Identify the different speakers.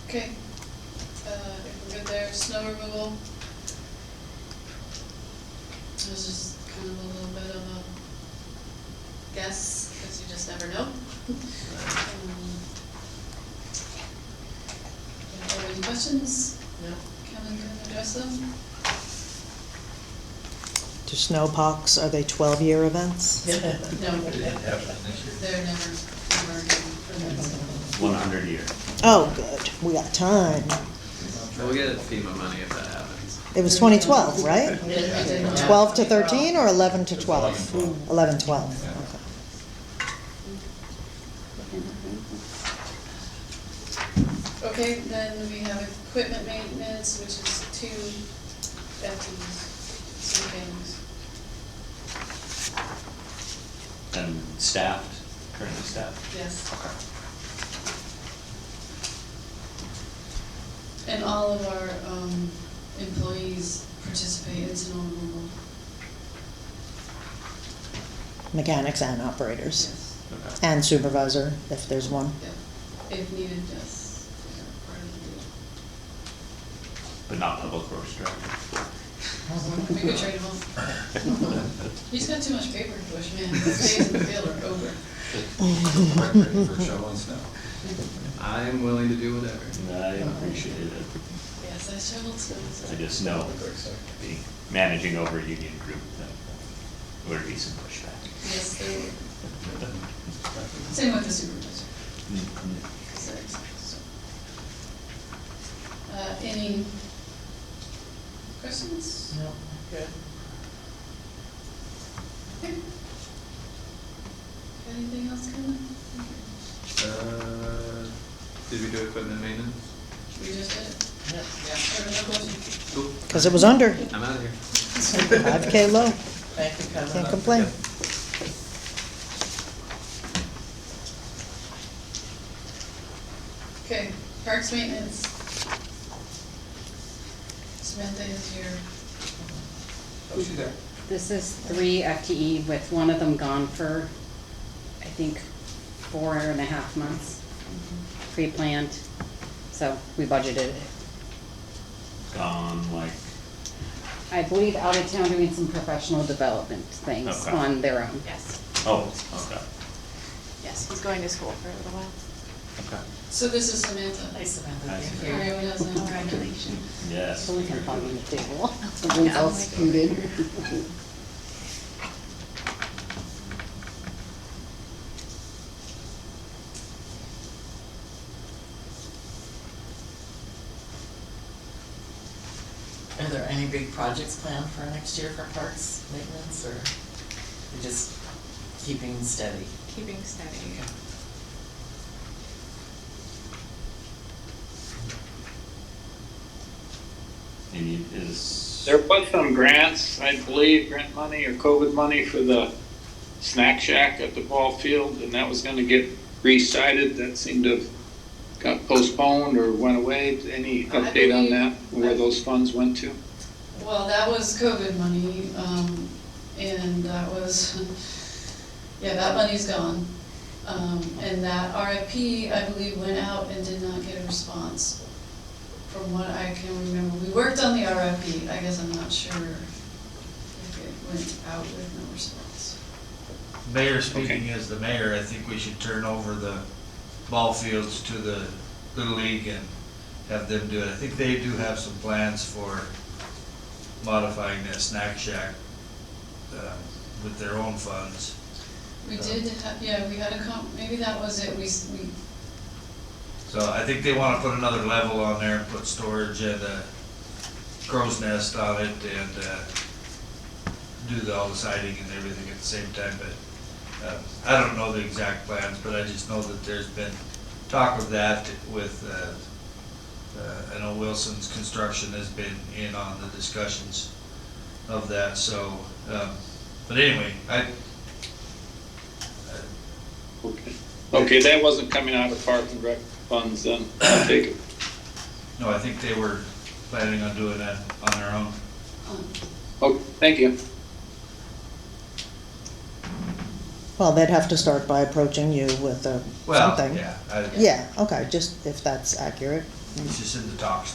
Speaker 1: Okay, uh, if we're good there, snow removal. This is kind of a little bit of a guess, because you just never know. Um, yeah, Any questions?
Speaker 2: No.
Speaker 1: Kevin can address them?
Speaker 3: Do snowpox, are they twelve-year events?
Speaker 1: No,
Speaker 4: It happens next year.
Speaker 1: they're never, never given permits.
Speaker 5: One hundred year.
Speaker 3: Oh, good, we got time.
Speaker 6: We'll get FEMA money if that happens.
Speaker 3: It was twenty twelve, right?
Speaker 2: Yeah.
Speaker 3: Twelve to thirteen or eleven to
Speaker 4: It's
Speaker 3: twelve?
Speaker 4: 11.
Speaker 3: Eleven, twelve,
Speaker 4: Yeah.
Speaker 3: okay.
Speaker 1: Okay, then we have equipment maintenance, which is two Betsy's, two things.
Speaker 5: And staffed, currently staffed.
Speaker 1: Yes. And all of our um, employees participate in snow removal.
Speaker 3: Mechanics and operators,
Speaker 1: Yes.
Speaker 6: Okay.
Speaker 3: and supervisor, if there's one.
Speaker 1: Yeah. If needed, yes. They're part of
Speaker 5: But not public works director.
Speaker 1: the deal. We could trade him off. He's got too much paper to push, man. His days in the field are over.
Speaker 4: Record For shoveling snow.
Speaker 6: I'm willing to do whatever.
Speaker 5: And I appreciate it.
Speaker 1: Yes, I shoveled snow. so-
Speaker 5: I just know, being, managing over a union group, that would be some pushback.
Speaker 1: Yes, they were. Same with the supervisor. So, so. Uh, any questions?
Speaker 2: No. Good.
Speaker 1: Okay. Anything else coming?
Speaker 6: Uh, Did we do equipment maintenance?
Speaker 1: We just did it.
Speaker 2: Yeah.
Speaker 1: There was no question.
Speaker 6: Cool.
Speaker 3: Because it was under
Speaker 6: I'm out of here.
Speaker 3: five K low,
Speaker 2: Thank you,
Speaker 3: can't
Speaker 2: Kevin.
Speaker 3: complain.
Speaker 1: Okay, parks maintenance. Samantha is here.
Speaker 4: Oh, she's there.
Speaker 7: This is three FTE with one of them gone for, I think, four and a half months, pre-planned. So we budgeted it.
Speaker 5: Gone like,
Speaker 7: I believe out of town doing some professional development things
Speaker 5: Okay.
Speaker 7: on their own.
Speaker 8: Yes,
Speaker 5: oh, okay,
Speaker 8: yes, he's going to school for a little while.
Speaker 5: okay.
Speaker 1: So this is Samantha.
Speaker 5: Nice.
Speaker 1: Everyone else knows.
Speaker 8: Congratulations.
Speaker 5: Yes.
Speaker 7: So we can find them the table, something's
Speaker 8: Yeah.
Speaker 7: else included.
Speaker 2: Are there any big projects planned for next year for parks maintenance, or you're just keeping steady?
Speaker 8: Keeping steady.
Speaker 5: And you- is,
Speaker 9: There was some grants, I believe, grant money or COVID money for the snack shack at the ball field, and that was gonna get recited. That seemed to have got postponed or went away. Any
Speaker 1: I
Speaker 9: update on
Speaker 1: believe-
Speaker 9: that, where those funds went to?
Speaker 1: Well, that was COVID money, um, and that was, yeah, that money's gone. Um, and that RFP, I believe, went out and did not get a response, from what I can remember. We worked on the RFP, I guess I'm not sure if it went out with no response.
Speaker 10: Mayor, speaking as the mayor, I think we should turn over the ball fields to the Little League and have them do it. I think they do have some plans for modifying that snack shack uh, with their own funds.
Speaker 1: We did have, yeah, we had a com, maybe that was it, we, s- we,
Speaker 10: So I think they want to put another level on there and put storage and a crow's nest on it and uh, do the- all the siding and everything at the same time, but um, I don't know the exact plans, but I just know that there's been talk of that with, uh, uh, I know Wilson's Construction has been in on the discussions of that, so, um, but anyway, I, uh,
Speaker 9: Okay. Okay, that wasn't coming out of park and rec funds then, I take it.
Speaker 10: no, I think they were planning on doing that on their own.
Speaker 1: um,
Speaker 9: Oh, thank you.
Speaker 3: Well, they'd have to start by approaching you with a
Speaker 10: Well,
Speaker 3: something.
Speaker 10: yeah. I-
Speaker 3: Yeah, okay, just if that's accurate,
Speaker 10: It's just in the talks